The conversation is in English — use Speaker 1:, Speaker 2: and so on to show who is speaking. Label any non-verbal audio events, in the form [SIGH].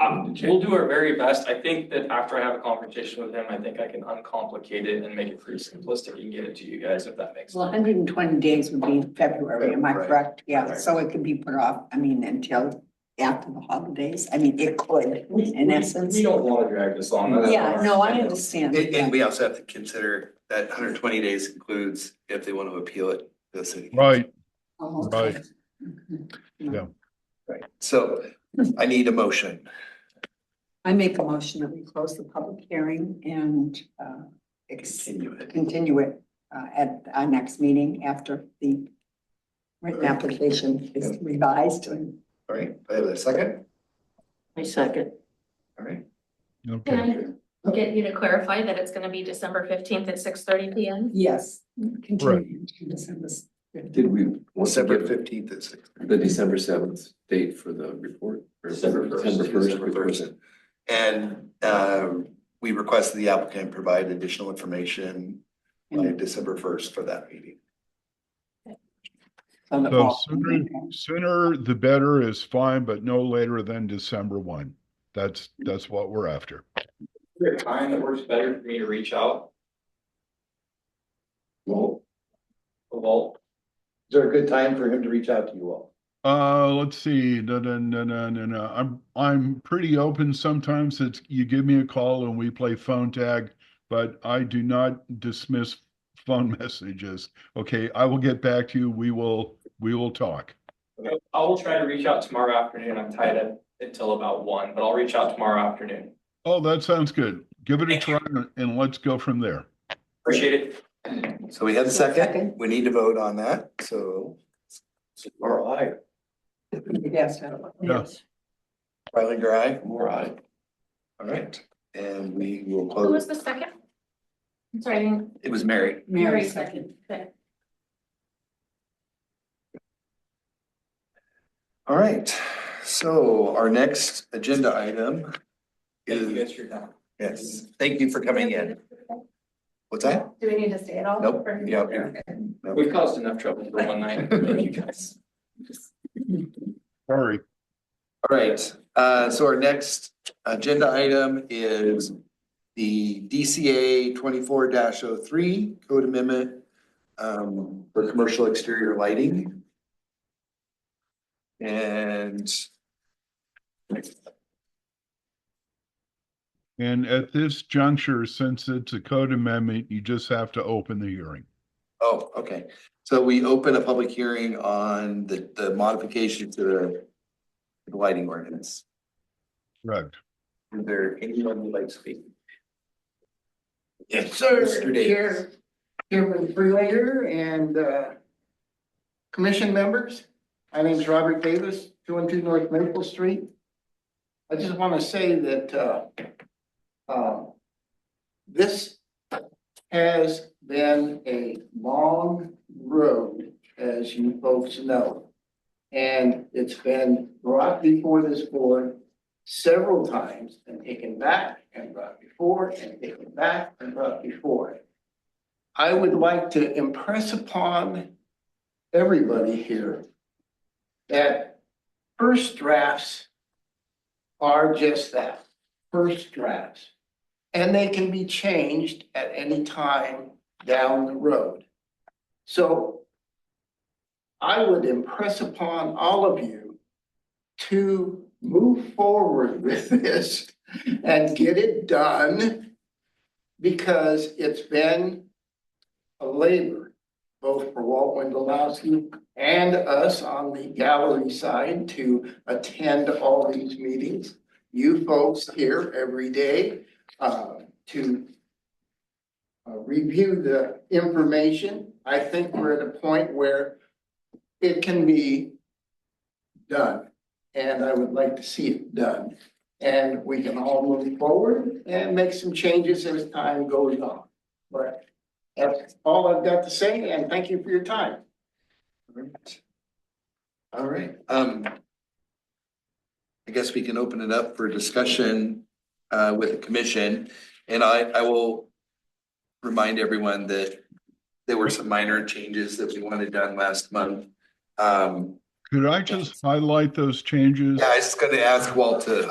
Speaker 1: Um, we'll do our very best. I think that after I have a conversation with him, I think I can uncomplicate it and make it pretty simplistic and get it to you guys if that makes sense.
Speaker 2: Well, hundred and twenty days would be February, am I
Speaker 3: Right.
Speaker 2: correct? Yeah,
Speaker 3: Right.
Speaker 2: so it could be put off, I mean, until after the holidays. I mean, it could, in essence.
Speaker 1: We don't want to drag this on. that's
Speaker 2: Yeah,
Speaker 1: our-
Speaker 2: no, I understand.
Speaker 3: And, and we also have to consider that hundred twenty days includes if they want to appeal it to the city.
Speaker 4: Right,
Speaker 2: Oh, okay.
Speaker 4: right.
Speaker 2: Mm-hmm.
Speaker 3: Right. So I need a motion.
Speaker 2: I make a motion that we close the public hearing and uh, ex-
Speaker 3: Continue it.
Speaker 2: continue it uh, at our next meeting after the written application is revised and
Speaker 3: All right, I have a second.
Speaker 5: I second.
Speaker 3: All right.
Speaker 4: okay.
Speaker 6: Can I get you to clarify that it's gonna be December fifteenth at six thirty P M?
Speaker 2: yes, continue to December
Speaker 7: Did we?
Speaker 3: December fifteenth at six.
Speaker 7: The December seventh date for the report? or
Speaker 3: December first.
Speaker 7: December first. report?
Speaker 3: And, um, we request the applicant provide additional information
Speaker 8: Mm-hmm.
Speaker 3: by December first for that meeting.
Speaker 2: on the
Speaker 4: So
Speaker 2: ball.
Speaker 4: sooner, sooner the better is fine, but no later than December one. That's, that's what we're after.
Speaker 1: Is there a time that works better for me to reach out?
Speaker 7: Well,
Speaker 1: Well,
Speaker 8: Is there a good time for him to reach out to you all?
Speaker 4: Uh, let's see, no, no, no, no, no, no. I'm, I'm pretty open sometimes. It's, you give me a call and we play phone tag, but I do not dismiss phone [LAUGHS] messages. Okay, I will get back to you. We will, we will talk.
Speaker 1: I will try to reach out tomorrow afternoon. I'm tied up until about one, but I'll reach out tomorrow afternoon.
Speaker 4: Oh, that sounds good. Give it a try
Speaker 1: Thank
Speaker 4: and let's go from there.
Speaker 1: Appreciate it.
Speaker 3: So we have a second.
Speaker 2: Second.
Speaker 3: We need to vote on that, so.
Speaker 7: Or I,
Speaker 2: Yes,
Speaker 4: Yeah.
Speaker 3: Rylander, aye.
Speaker 7: or I.
Speaker 3: All right, and we will
Speaker 6: Who was
Speaker 3: close.
Speaker 6: the second? I'm sorry, I didn't.
Speaker 3: It was Mary.
Speaker 2: Mary second.
Speaker 6: Okay.
Speaker 3: All right, so our next agenda item
Speaker 1: Thank you
Speaker 3: is,
Speaker 1: guys for your time.
Speaker 3: yes, thank you for coming in.
Speaker 6: Do
Speaker 3: What's that?
Speaker 6: we need to stay at all?
Speaker 3: Nope,
Speaker 6: Or-
Speaker 3: yeah.
Speaker 6: Okay.
Speaker 1: We've caused enough trouble for one night. [LAUGHS] Thank you guys.
Speaker 4: Sorry.
Speaker 3: All right, uh, so our next agenda item is the DCA twenty-four 3 code amendment um, for commercial exterior lighting. And
Speaker 4: And at this juncture, since it's a code amendment, you just have to open the hearing.
Speaker 3: Oh, okay. So we open a public hearing on the, the modification to the the lighting ordinance.
Speaker 4: Correct.
Speaker 3: Is there anyone who'd like to speak?
Speaker 9: Yes, sir.
Speaker 3: Mr. Davis.
Speaker 9: Here, here with Freelater and uh, commission members. My name's Robert Davis, two one two North Maple Street. I just want to say that uh, uh, this has been a long road, as you folks know. And it's been brought before this board several times and taken back and brought before and taken back and brought before. I would like to impress upon everybody here that first drafts are just that, first drafts. And they can be changed at any time down the road. So I would impress upon all of you to move forward with this and get it done because it's been a labor, both for Walt Wendelowski and us on the gallery side to attend all these meetings. You folks here every day uh, to uh, review the information. I think we're at a point where it can be done and I would like to see it done. And we can all move forward and make some changes as time goes on. But that's all I've got to say, and thank you for your time.
Speaker 3: All right, um. I guess we can open it up for discussion uh with the commission and I I will. Remind everyone that there were some minor changes that we wanted done last month. Um,
Speaker 4: Could I just highlight those changes?
Speaker 3: yeah, I was just gonna ask Walt to